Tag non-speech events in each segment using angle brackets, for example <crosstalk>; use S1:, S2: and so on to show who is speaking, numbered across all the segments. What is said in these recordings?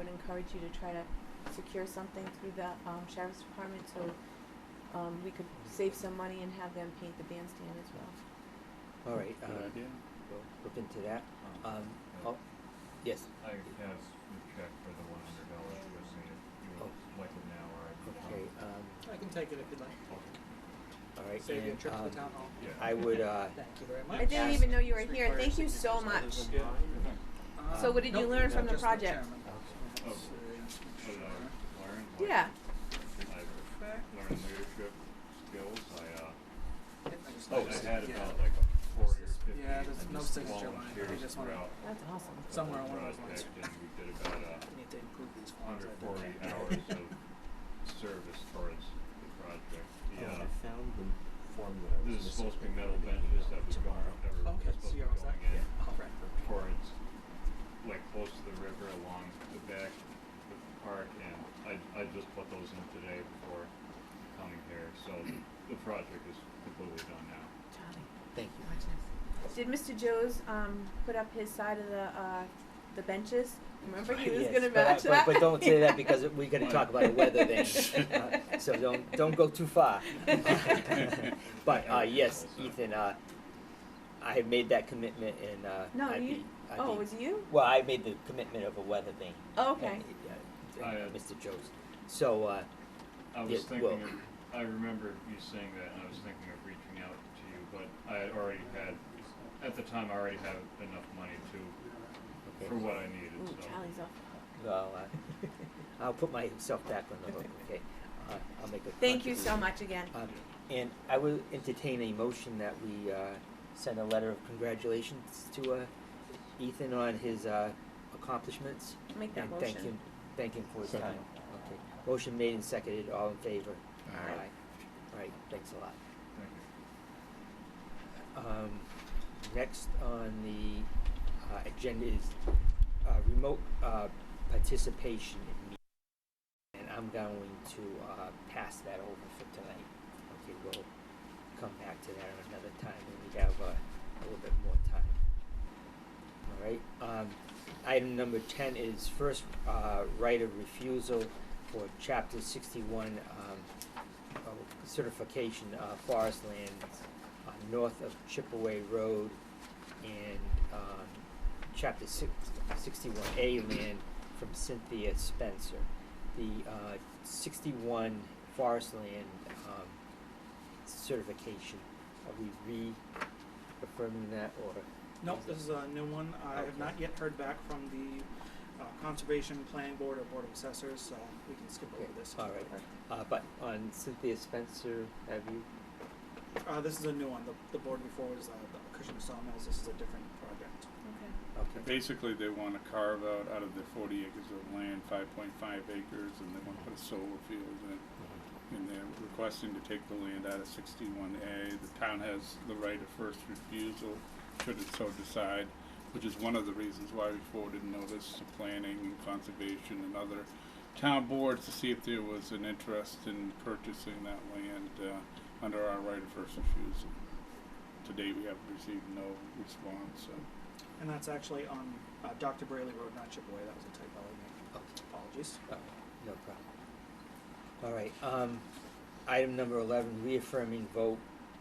S1: encourage you to try to secure something through the, um, sheriff's department, so, um, we could save some money and have them paint the bandstand as well.
S2: All right, um,
S3: Good idea.
S2: we'll look into that.
S4: Um,
S2: Um,
S4: uh,
S2: oh, yes,
S4: I asked the check for the one hundred dollars you was made, you would
S5: Oh.
S4: like it now or I could.
S2: okay, um,
S5: I can take it if you'd like.
S2: all right,
S5: Save you a
S2: and,
S5: trip to the
S2: um,
S5: town hall.
S4: Yeah.
S2: I would,
S5: <laughs>
S2: uh,
S5: Thank you very much.
S1: I didn't even know you were
S5: It's
S1: here, thank you
S5: required
S1: so
S5: signatures
S1: much.
S5: other than
S4: Yeah.
S5: mine.
S1: So
S5: Um,
S1: what did you
S5: nope,
S1: learn
S5: no,
S1: from the
S5: just
S1: project?
S5: chairman.
S4: Oh.
S5: Let's see.
S4: Should I learn what?
S1: Yeah,
S4: I learned leadership skills, I, uh,
S5: I just-
S4: I I had
S5: Oh, yeah.
S4: about like a forty or fifty.
S5: Yeah, there's no signature line. I
S4: Volunteers
S5: just wanna-
S4: throughout
S1: that's awesome.
S5: Somewhere
S4: the
S5: one of those lines.
S4: project and we did about uh, a
S5: Need to improve these forms.
S4: hundred
S5: I think.
S4: forty hours of service towards the project. The,
S6: Oh,
S4: uh,
S6: I found the form that I was
S4: this is supposed to be
S6: missing.
S4: metal benches that was going,
S5: Tomorrow.
S4: that were
S5: <laughs> Okay,
S4: supposed
S5: so
S4: to be
S5: you're all set?
S4: going in.
S5: Yeah, all right.
S4: towards, like, close to the river along the back of the park, and I, I just put those in today before coming here, so the project is completely done now.
S1: Charlie,
S2: thank you.
S5: <laughs>
S1: watch this. Did Mr. Joe's, um, put up his side of the, uh, the benches? Remember he was
S2: Yes,
S1: gonna
S2: but-
S1: match
S2: but-
S1: that?
S2: But don't say that because we're
S5: <laughs>
S2: gonna talk about a weather thing, uh, so don't, don't go too far. <laughs> But, uh, yes, Ethan, uh, I had made that commitment and, uh,
S1: <laughs> No,
S2: I'd
S1: you-
S2: be, I'd
S1: Oh,
S2: be-
S1: was you?
S2: Well, I made the commitment of a weather thing.
S1: Oh, okay.
S2: and, uh,
S4: I, uh,
S2: Mr. Jost, so, uh,
S4: I
S2: Yeah,
S4: was
S2: well-
S4: thinking, of- I remember you saying that, and I was thinking of reaching out to you, but I had already had, at the time, I already had enough money to,
S2: okay.
S4: for what I needed,
S1: Ooh,
S4: so.
S1: Charlie's off.
S2: Well, uh, I'll put myself back on
S1: <laughs>
S2: the hook, okay? Uh, I'll make a.
S1: Thank you so
S2: contribution.
S1: much again.
S2: Um, and I will entertain a motion that we, uh, send a letter of congratulations to, uh, Ethan on his, uh, accomplishments.
S1: Make that
S2: And thank
S1: motion.
S2: him, thank him for his
S3: Second.
S2: time. Okay, motion made and seconded, all in favor?
S1: Aye.
S2: All right, thanks a lot.
S4: Thank you.
S2: Um, next on the, uh, agenda is, uh, remote, uh, participation in meetings. And I'm going to, uh, pass that over for tonight. Okay, we'll come back to that another time when we have, uh, a little bit more time. All right, um, item number ten is first, uh, right of refusal for chapter sixty-one, um, oh, certification, uh, forest lands, uh, north of Chipaway Road and, um, chapter six, sixty-one A land from Cynthia Spencer. The, uh, sixty-one forest land, um, certification, are we reaffirming that or?
S5: Nope, this is uh, a new one. I have not yet heard back from the uh, Conservation Planning Board or Board of Assessors, so we can skip
S2: Okay,
S5: over this.
S2: all right. Uh, but on Cynthia Spencer, have you,
S5: Uh, this is a new one. The, the board before was uh, the Cushing Sawmills. This is a different project.
S2: okay,
S3: Basically, they wanna carve out, out of their forty acres of land, five point five acres, and they wanna put a solar field in. And they're requesting to take the land out of sixty-one A. The town has the right of first refusal, should it so decide, which is one of the reasons why we forwarded notice to planning and conservation and other town boards to see if there was an interest in purchasing that land, uh, under our right of first refusal. To date, we have received no response, so.
S5: And that's actually on uh, Dr. Brayley Road, not Chipaway. That was a typo I made.
S2: Oh,
S5: Apologies.
S2: uh, no problem. All right, um, item number eleven, reaffirming vote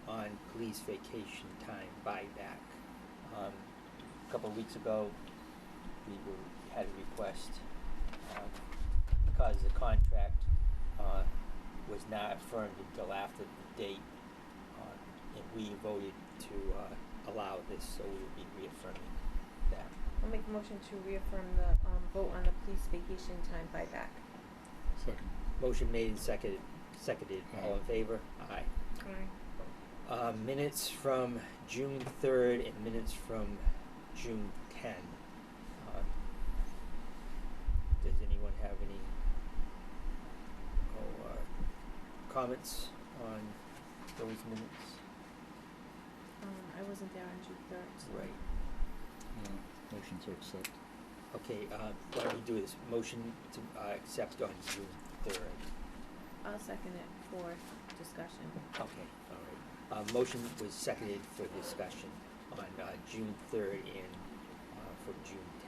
S2: on police vacation time buyback. Um, a couple of weeks ago, we were, had a request, uh, because the contract, uh, was not affirmed until after the date. Uh, and we voted to, uh, allow this, so we will be reaffirming that.
S1: I'll make a motion to reaffirm the, um, vote on the police vacation time buyback.
S3: Second.
S2: Motion made and seconded, seconded, all in
S3: Aye.
S2: favor? Aye. Uh, minutes from June third and minutes from June ten. Uh, Does anyone have any, oh, uh, comments on those minutes?
S1: Um, I wasn't there on June third, so.
S2: Right,
S3: Motion to accept.
S2: okay, uh, why don't we do this, motion to, uh, accept on June third.
S1: I'll second it for discussion.
S2: Okay, all right. Uh, motion was seconded for discussion on, uh, June third and, uh, for June